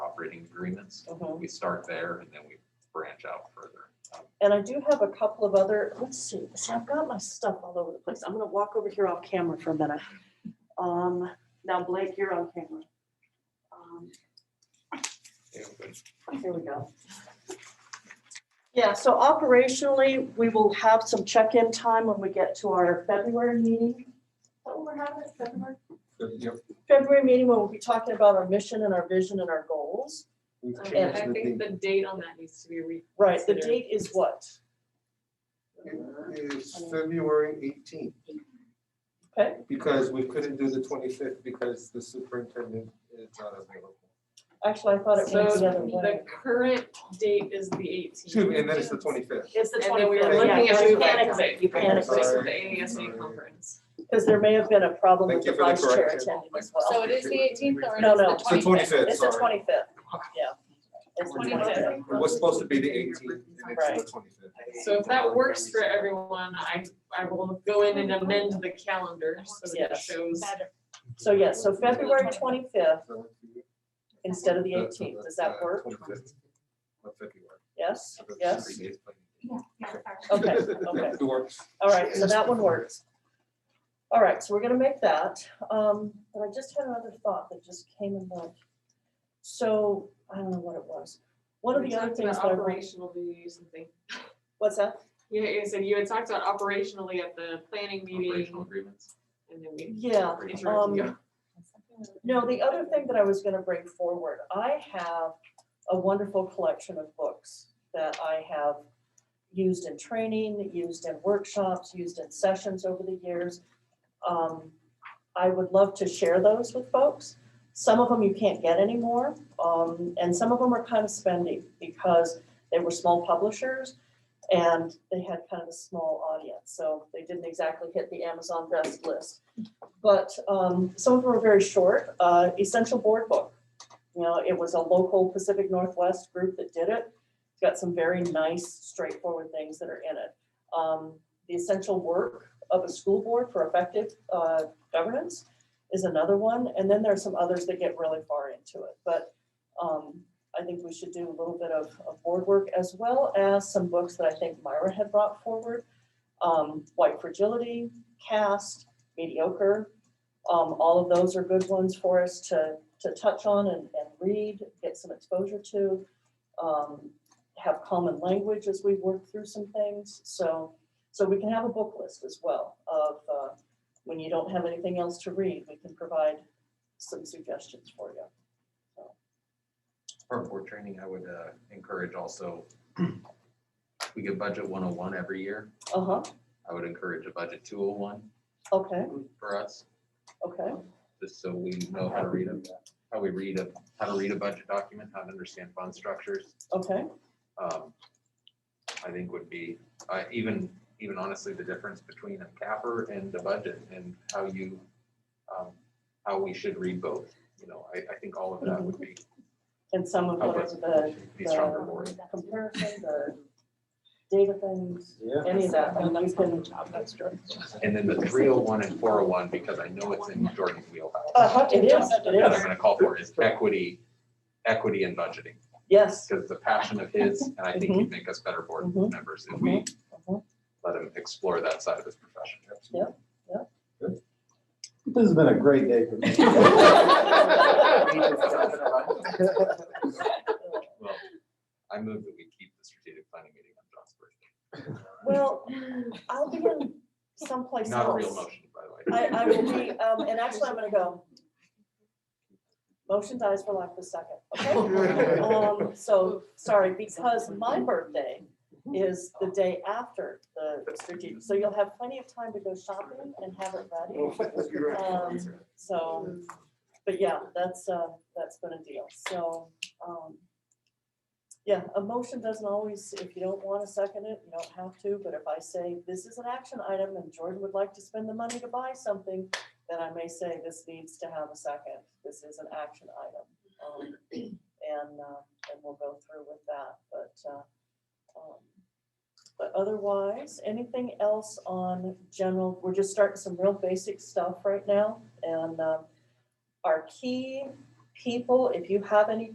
operating agreements. Mhm. We start there and then we branch out further. Um, And I do have a couple of other, let's see, see, I've got my stuff all over the place. I'm gonna walk over here off camera for a minute. Um, now Blake, you're on camera. Um, yeah, but Here we go. Yeah, so operationally, we will have some check-in time when we get to our February meeting. Is that what we're having, February? February meeting, when we'll be talking about our mission and our vision and our goals. We've Okay, changed I the think date. the date on that needs to be re. Right, the Consider. date is what? It is February eighteenth. Okay. Because we couldn't do the twenty-fifth because the superintendent is not available. Actually, I thought it So was the other the way. current date is the eighteenth. Shoot, and then it's the twenty-fifth. It's the And then we were twenty-fifth, yeah, looking at yeah, moving. you panicked it, you panicked Sorry. Just it. with the AASD conference. Because there may have been a problem with Thank the you for the vice chair correction. attending as well. So it is the eighteenth or No, it is no. the It's the twenty-fifth? 25th. It's the sorry. twenty-fifth, yeah. It's the 25th. 25th. It was supposed to be the eighteenth and it's Right. the twenty-fifth. So if that works for everyone, I, I will go in and amend the calendar so that it Yes. shows. So yes, so February twenty-fifth instead of the eighteenth, does uh, that work? Yes, yes, okay, okay, It works. all right, so that one works. All right, so we're gonna make that, um, but I just had another thought that just came in mind. So, I don't know what it was, one of We the other talked about things that I, want- Operationally, something. what's that? Yeah, you said you had talked about operationally at the planning meeting Operational agreements. and then we Yeah, um, interrupted you. No, the other thing that I was gonna bring forward, I have a wonderful collection of books that I have used in training, used in workshops, used in sessions over the years. Um, I would love to share those with folks. Some of them you can't get anymore, um, and some of them are kind of spendy because they were small publishers and they had kind of a small audience, so they didn't exactly hit the Amazon best list but um, some of them are very short. Uh, Essential Board Book. You know, it was a local Pacific Northwest group that did it. It's got some very nice, straightforward things that are in it. Um, the Essential Work of a School Board for Effective uh, Governance is another one. And then there are some others that get really far into it. But um, I think we should do a little bit of, of board work as well as some books that I think Myra had brought forward. Um, White Fragility, Cast, mediocre. Um, all of those are good ones for us to, to touch on and, and read, get some exposure to. Um, have common language as we work through some things, so, so we can have a book list as well of, uh, when you don't have anything else to read, we can provide some suggestions for you. For board training, I would uh, encourage also, we get budget 101 every year. Uh-huh, I would encourage a budget 201 okay, for us, okay, just so we know how to read a, how we read a, how to read a budget document, how to understand fund structures. okay, um, I think would be, uh, even, even honestly, the difference between a capper and a budget and how you, um, how we should read both, you know, I, I think all of that would be, and some of help those, us the be stronger for it. comparison, the data things, Yeah. any of that, and you can. And then the three oh one and four oh one, because I know it's in Jordan's wheelhouse. Uh-huh, it is, it That is. I'm gonna call for is equity, equity and budgeting, Yes. because it's a passion of his, and I think he'd make us better board Mhm. members if we Mhm. let him explore that side of his profession. This has been a great day for me. Well, I move that we keep the strategic planning meeting on John's birthday. Well, I'll be in someplace else. Not a real motion, by the I, way. I will be, um, and actually I'm gonna go. Motion dies for lack of a second, okay? Um, so, sorry, because my birthday is the day after the strategic, so you'll have plenty of time to go shopping and have it ready. Um, So, but yeah, that's, uh, that's been a deal, so, um. Yeah, a motion doesn't always, if you don't wanna second it, you don't have to, but if I say this is an action item and Jordan would like to spend the money to buy something. Then I may say this needs to have a second, this is an action item, um, and, uh, and we'll go through with that, but, uh. um, But otherwise, anything else on general, we're just starting some real basic stuff right now, and, um. Our key uh, people, if you have any